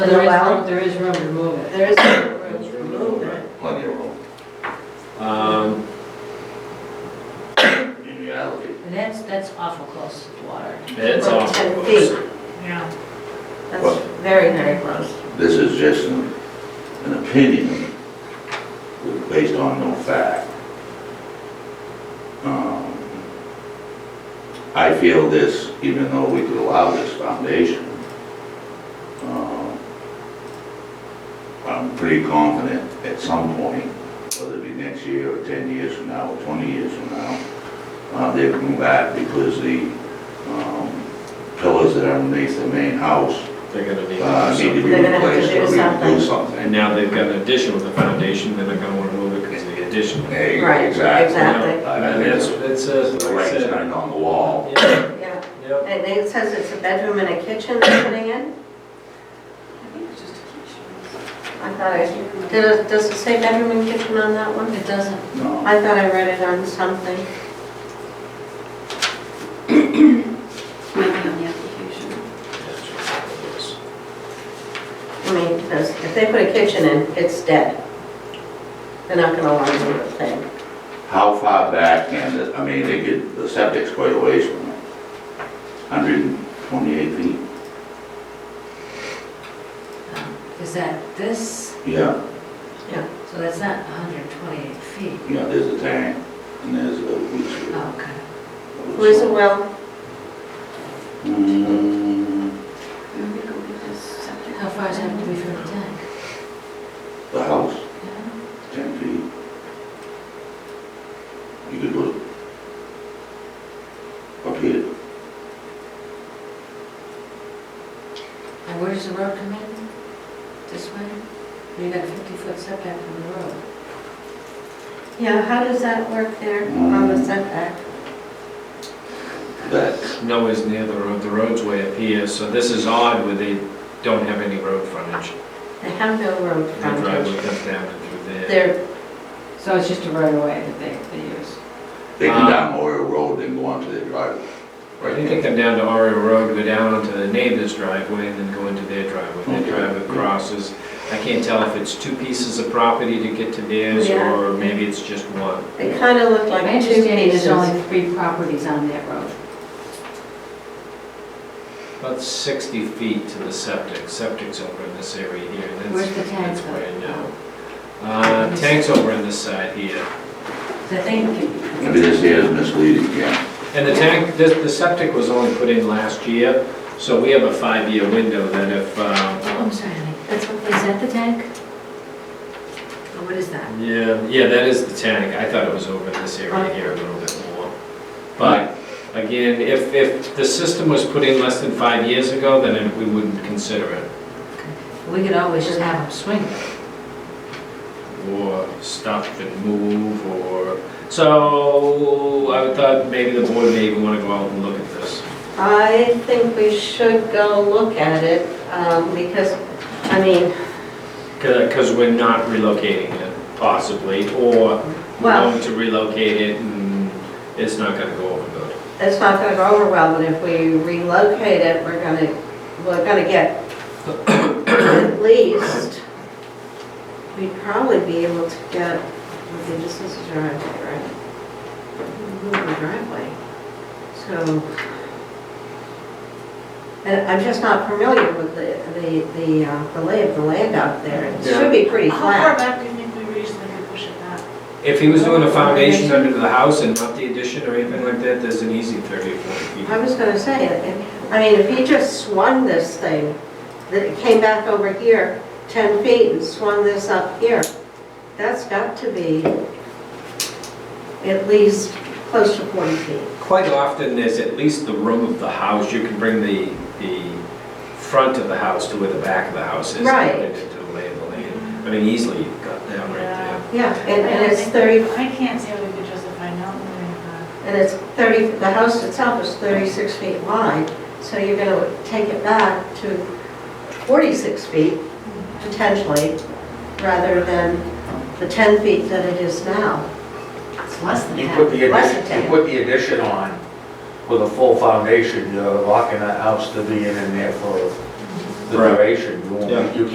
There is allowed? room- There is room to move it. There is There's room to room to move move it. plenty of room. Um, In reality, And That's, that's awful close to water. it's Like awful 10 close. Yeah. That's Well- very, very close. This is just an, an opinion based on no fact. Um, I feel this, even though we could allow this foundation, um, I'm pretty confident at some point, whether it be next year or ten years from now or twenty years from now, uh, they'll come back because the, um, pillars that are underneath the main house They're gonna need uh, to need to do be They're gonna have to replaced do or we something. can do something. And something. now they've got an addition with the foundation, they're not gonna wanna move it because of the addition. There you go, Right, exactly. exactly. I And think that's, it's, it says, the like I light's said. turned on the wall. Yeah, Yeah, Yep. and it says it's a bedroom and a kitchen they're putting in? I thought I, did it- does it say bedroom and kitchen on that one? It doesn't, No, I thought I read it on something. maybe on the application. I mean, because if they put a kitchen in, it's dead. They're not gonna want to do a thing. how far back can it, I mean, they get, the septic's quite a ways from it. Hundred and twenty-eight feet? um, is that this, Yeah, so that's not 128 feet. yeah, there's a tank and there's a leach Oh, okay. field. Who is it, Will? Mm, Let me go get this septic. How far does it have to be from the tank? The house, Yeah. ten feet. You could look. Up here, And where does the road come in? This way? You got a 50-foot setback from the road. Yeah, how does that work there on the setback? that's, No is near the road, the road's way up here, so this is odd where they don't have any road frontage. They have no road The driveway frontage. comes down and through there. They're, So it's just a right of way that they, they use? they come Um, down Oriole Road and go onto their driveway. I Right think they come down to Aria Road, go down onto the neighbor's driveway, and then go into their driveway. Their Okay. driveway crosses. I can't tell if it's two pieces of property to get to theirs, Yeah. or maybe it's just one. they kind of look like My two understanding is there's pieces. only three properties on that road. About 60 feet to the septic. Septic's over in this area here. That's- Where's the tank That's where I know. though? Oh. Uh, Tank's over on this side here. So I think, Maybe this here is misleading, yeah. And the tank, the, the septic was only put in last year, so we have a five-year window that if, um, oh, I'm sorry, honey. that's, what- is that the tank? Or what is that? yeah, yeah, that is the tank. I thought it was over in this area here a little bit more. But again, if, if the system was put in less than five years ago, then it- we wouldn't consider it. We could always just have them swing. Or stop and move, or, so I thought maybe the board may even want to go out and look at this. I think we should go look at it, um, because, I mean, Because we're not relocating it possibly, or we're Well- going to relocate it and it's not going to go over good. it's not gonna go over well, but if we relocate it, we're gonna, we're gonna get at least, we'd probably be able to get, let's see, this is a driveway, right? Move the driveway, so. And I'm just not familiar with the, the, the, uh, the lay of the land out there, it should be pretty How far flat. back do you think we reached that we push it back? If he was doing a foundation under the house and not the addition or anything like that, there's an easy 30 or I 40 feet. was gonna say, if- I mean, if he just swung this thing, that it came back over here 10 feet and swung this up here, that's got to be at least close to 40 feet. Quite often, there's at least the room of the house, you can bring the, the front of the house to where the back of the house is. Right. and Into the lay of the land. I mean, easily you've got that right there. Yeah, and I and don't it's think- 30, I can't say we could justify not moving it back. and it's 30, the house itself is 36 feet wide, so you're gonna take it back to 46 feet potentially, rather than the 10 feet that it is now. It's less than You put half. the, Less addition- than you put the addition on with a full foundation, you're locking that house to be in and there for the Right. duration, you won't, Yeah. you